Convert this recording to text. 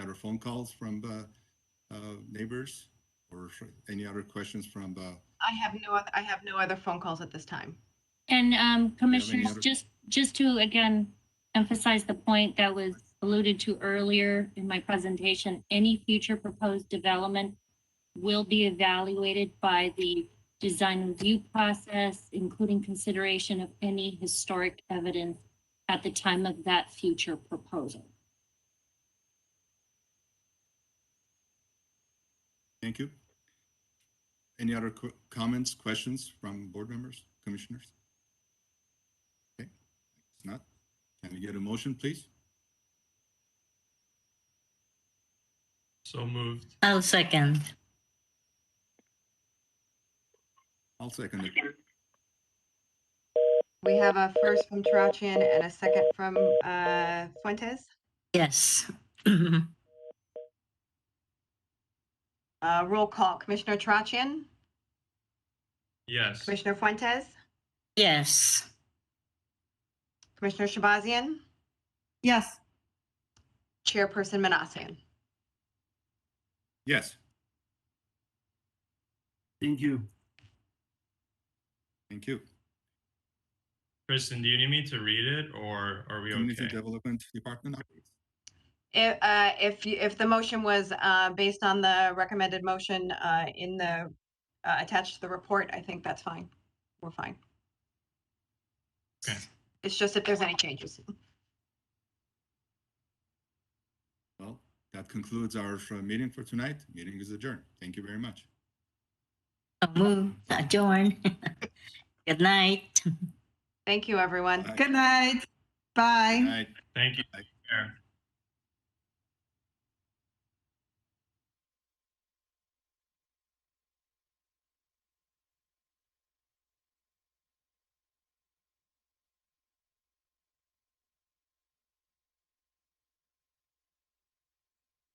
phone calls from uh, uh, neighbors or any other questions from uh, I have no, oth- I have no other phone calls at this time. And um, commissioners, other- just, just to again emphasize the point that was alluded to earlier in my presentation, any future proposed development will be evaluated by the design review process, including consideration of any historic evidence at the time of that future proposal. Thank you. Any other qu- comments, questions from board members, commissioners? Okay, if not, can we get a motion, please? So moved. I'll Oh, second. I'll second it. We have a first from Tarachian and a second from uh, Fuentes. Yes. Uh, Roll call, Commissioner Tarachian, Yes. Commissioner Fuentes, yes. Commissioner Shabazian, yes, Chairperson Manassian. Yes, Thank you. thank you. Kristen, do you need me to read it or are we Community okay? Development Department, updates. If, uh, if, you- if the motion was uh, based on the recommended motion uh, in the, uh, attached to the report, I think that's fine. We're fine. Okay. It's just if there's any changes. well, that concludes our uh, meeting for tonight. Meeting is adjourned. Thank you very much. I'll move, adjourn. Good night. Thank you, everyone. Bye. good night, bye. Good night. Thank you. Take care.